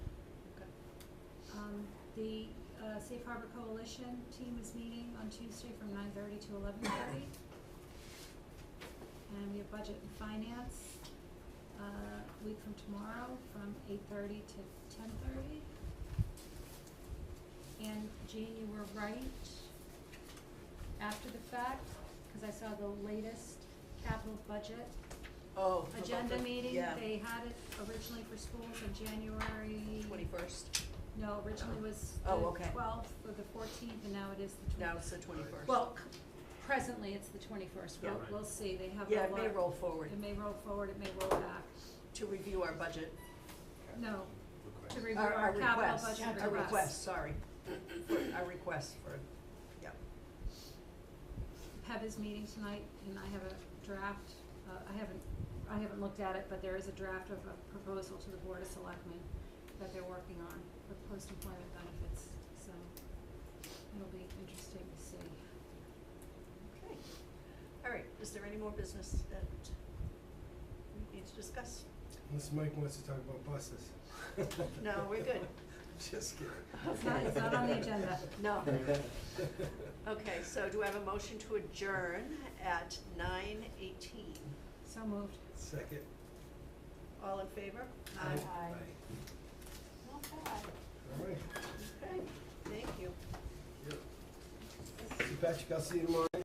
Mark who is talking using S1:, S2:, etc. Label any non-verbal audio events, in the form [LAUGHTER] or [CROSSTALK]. S1: Um, The uh, Safe Harbor Coalition team is meeting on Tuesday from nine thirty to eleven thirty. And we have Budget and Finance, uh, a week from tomorrow, from eight thirty to ten thirty. And Jean, you were right, after the fact, cause I saw the latest capital budget
S2: Oh. about
S1: agenda
S2: the-
S1: meeting,
S2: yeah.
S1: they had it originally for schools in January.
S2: Twenty-first,
S1: No, originally was the
S2: Oh, okay.
S1: twelfth or the fourteenth, and now it is the
S2: now
S1: twenty.
S2: it's the twenty-first.
S1: Well, c- presently, it's the twenty-first,
S3: Yeah,
S1: we'll,
S3: right.
S1: we'll see, they have a
S2: Yeah,
S1: lot.
S2: it may roll forward
S1: It may roll forward, it may roll back,
S2: to review our budget,
S1: no, to
S3: Request.
S1: review
S2: our,
S1: our
S2: our
S1: capital
S2: request,
S1: budget request.
S2: our request, sorry. Our request for, yeah.
S1: PEB is meeting tonight, and I have a draft, uh, I haven't, I haven't looked at it, but there is a draft of a proposal to the Board of Selectmen that they're working on for post-employment benefits, so it'll be interesting to see.
S2: Okay. All right, is there any more business that we need to discuss?
S4: Unless Mike wants to talk about buses.
S2: [LAUGHS] No, we're good.
S4: [LAUGHS] Just kidding.
S1: It's not, it's not on the agenda.
S4: [LAUGHS]
S2: No. Okay, so do I have a motion to adjourn at nine eighteen?
S1: So moved.
S4: Second.
S2: All in favor? Not bad.
S4: All right.
S2: Okay, thank you.
S4: Patrick, I'll see you tomorrow.